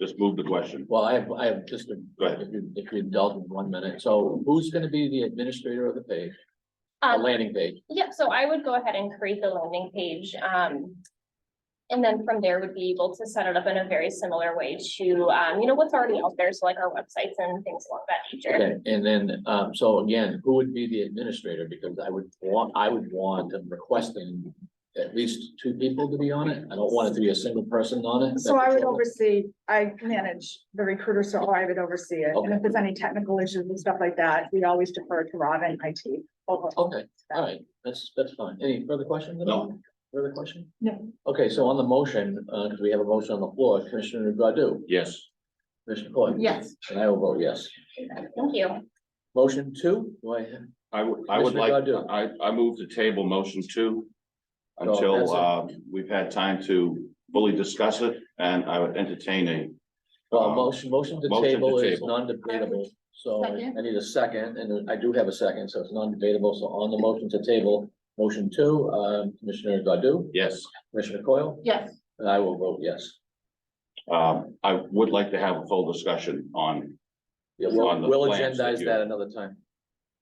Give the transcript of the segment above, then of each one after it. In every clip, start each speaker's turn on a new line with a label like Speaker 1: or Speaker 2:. Speaker 1: Just move the question.
Speaker 2: Well, I have, I have just, a-
Speaker 1: Go ahead.
Speaker 2: if you, if you indulge in one minute, so who's gonna be the administrator of the page,
Speaker 3: Uh,
Speaker 2: the
Speaker 4: Um,
Speaker 2: landing page?
Speaker 4: yeah, so I would go ahead and create the landing page, um. And then from there would be able to set it up in a very similar way to, um, you know, what's already out there, so like our websites and things along that nature.
Speaker 2: Okay, and then, um, so again, who would be the administrator? Because I would want, I would want, I'm requesting at least two people to be on it. I don't want it to be a single person on it.
Speaker 3: So I would oversee, I manage the recruiter, so I would oversee it. And if there's any technical issues and stuff like that, we always defer to Rob and IT. over
Speaker 2: Okay, all right, that's, that's fine. Any further questions? at all? Further question?
Speaker 3: No.
Speaker 2: Okay, so on the motion, uh, 'cause we have a motion on the floor, Commissioner Godu,
Speaker 1: Yes.
Speaker 2: Commissioner Coyle.
Speaker 3: Yes.
Speaker 2: And I will vote yes.
Speaker 4: Thank you.
Speaker 2: Motion two, do I have?
Speaker 1: I would, I would like,
Speaker 2: Commissioner
Speaker 1: I, I move the table motion two.
Speaker 2: No, that's
Speaker 1: Until,
Speaker 2: it.
Speaker 1: uh, we've had time to fully discuss it and I would entertain a,
Speaker 2: Well,
Speaker 1: Um,
Speaker 2: motion, motion to
Speaker 1: motion to
Speaker 2: table is
Speaker 1: table.
Speaker 2: non-debatable, so I
Speaker 3: Second.
Speaker 2: need a second, and I do have a second, so it's non-debatable, so on the motion to table. Motion two, um, Commissioner Godu,
Speaker 1: yes,
Speaker 2: Commissioner Coyle,
Speaker 3: Yes.
Speaker 2: and I will vote yes.
Speaker 1: um, I would like to have a full discussion on,
Speaker 2: Yeah, we'll,
Speaker 1: On the
Speaker 2: we'll
Speaker 1: plans that
Speaker 2: agendize
Speaker 1: you-
Speaker 2: that another time.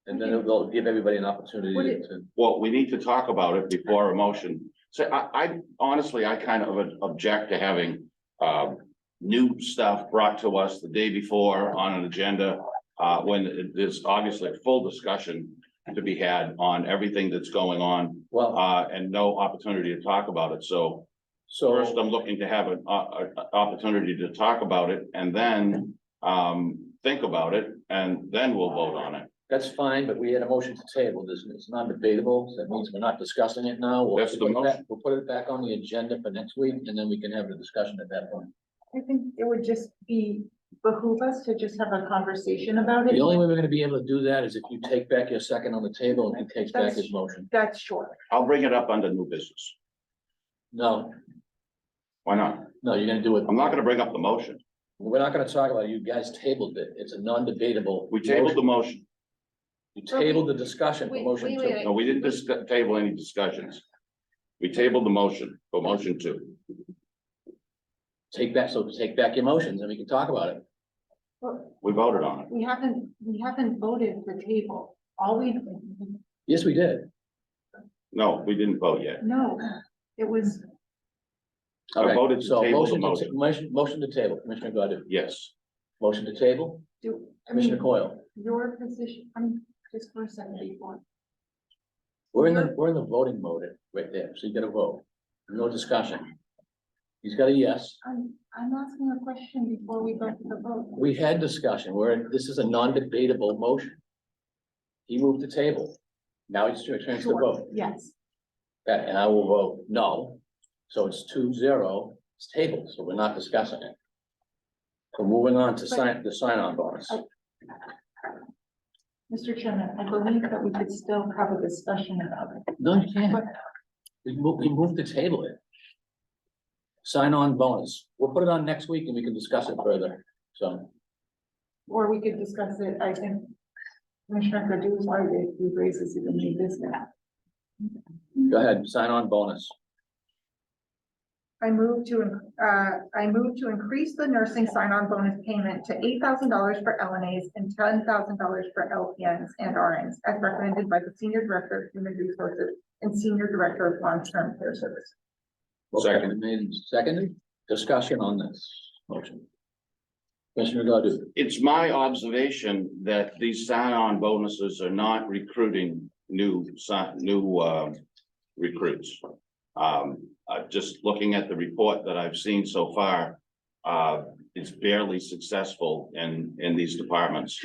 Speaker 2: And then we'll give everybody an opportunity
Speaker 3: Would it-
Speaker 2: to,
Speaker 1: well, we need to talk about it before a motion. So I, I honestly, I kind of object to having, um, new stuff brought to us the day before on an agenda. Uh, when there's obviously a full discussion to be had on everything that's going on.
Speaker 2: well,
Speaker 1: uh, and no opportunity to talk about it, so first
Speaker 2: so,
Speaker 1: I'm looking to have an, uh, opportunity to talk about it and then, um, think about it, and then we'll vote on it.
Speaker 2: that's fine, but we had a motion to table, this is non-debatable, so that means we're not discussing it now. We'll
Speaker 1: That's the
Speaker 2: put it back-
Speaker 1: motion.
Speaker 2: We'll put it back on the agenda for next week, and then we can have the discussion at that point.
Speaker 5: I think it would just be behoove us to just have a conversation about it.
Speaker 2: The only way we're gonna be able to do that is if you take back your second on the table and he takes back his
Speaker 5: That's-
Speaker 2: motion.
Speaker 5: That's sure.
Speaker 1: I'll bring it up under new business.
Speaker 2: No,
Speaker 1: Why not?
Speaker 2: no, you're gonna do it.
Speaker 1: I'm not gonna bring up the motion.
Speaker 2: We're not gonna talk about it. You guys tabled it. It's a non-debatable.
Speaker 1: We tabled the motion.
Speaker 2: You tabled the discussion for
Speaker 6: Wait,
Speaker 2: motion
Speaker 6: wait,
Speaker 2: two.
Speaker 6: wait,
Speaker 1: No, we didn't dis- table any discussions. We tabled the motion, for motion two.
Speaker 2: Take back, so take back your motions and we can talk about it.
Speaker 5: But
Speaker 1: We voted on it.
Speaker 5: we haven't, we haven't voted the table. All we,
Speaker 2: Yes, we did.
Speaker 1: No, we didn't vote yet.
Speaker 5: no, it was,
Speaker 1: I
Speaker 2: Okay,
Speaker 1: voted to
Speaker 2: so
Speaker 1: table the
Speaker 2: motion
Speaker 1: motion.
Speaker 2: ta- Motion, motion to table, Commissioner Godu.
Speaker 1: Yes,
Speaker 2: Motion to table,
Speaker 5: do, I
Speaker 2: Commissioner
Speaker 5: mean,
Speaker 2: Coyle.
Speaker 5: your position, I'm just for a second before.
Speaker 2: We're in the, we're in the voting mode right there, so you gotta vote. No discussion. He's got a yes.
Speaker 5: I'm, I'm asking a question before we go to the vote.
Speaker 2: We had discussion, where this is a non-debatable motion. He moved the table. Now it's your chance to
Speaker 5: Sure,
Speaker 2: vote.
Speaker 5: Yes,
Speaker 2: That- And I will vote no. So it's two zero, it's tabled, so we're not discussing it. So moving on to sign, the sign-on bonus.
Speaker 5: Mr. Chairman, I believe that we could still have a discussion about it.
Speaker 2: No, you can't. We move, we moved the table it. Sign-on bonus. We'll put it on next week and we can discuss it further. So,
Speaker 5: Or we could discuss it, I think. Commissioner Godu is why he raises it in new business.
Speaker 2: go ahead, sign-on bonus.
Speaker 5: I move to, uh, I move to increase the nursing sign-on bonus payment to eight thousand dollars for LNAs and ten thousand dollars for LPNs and RNs as recommended by the Senior Director of Human Resources and Senior Director of Long-Term Care Services.
Speaker 1: Second.
Speaker 2: Motion Made and seconded. Discussion on this motion. Commissioner Godu,
Speaker 1: it's my observation that these sign-on bonuses are not recruiting new, si- new, um recruits. Um, uh, just looking at the report that I've seen so far, uh, it's barely successful in, in these departments.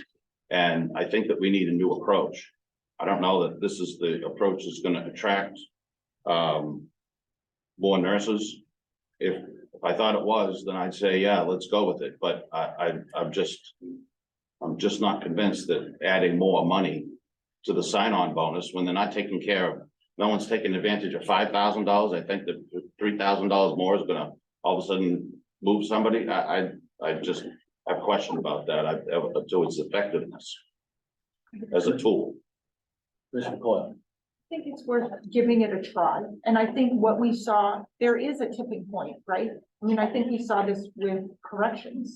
Speaker 1: And I think that we need a new approach. I don't know that this is the approach that's gonna attract, um, more nurses. If, if I thought it was, then I'd say, yeah, let's go with it, but I, I, I'm just. I'm just not convinced that adding more money to the sign-on bonus when they're not taking care of. No one's taking advantage of five thousand dollars, I think that three thousand dollars more is gonna all of a sudden move somebody, I, I, I just. I've questioned about that, I've, to its effectiveness as a tool.
Speaker 2: Commissioner Coyle.
Speaker 5: I think it's worth giving it a try, and I think what we saw, there is a tipping point, right? I mean, I think we saw this with corrections.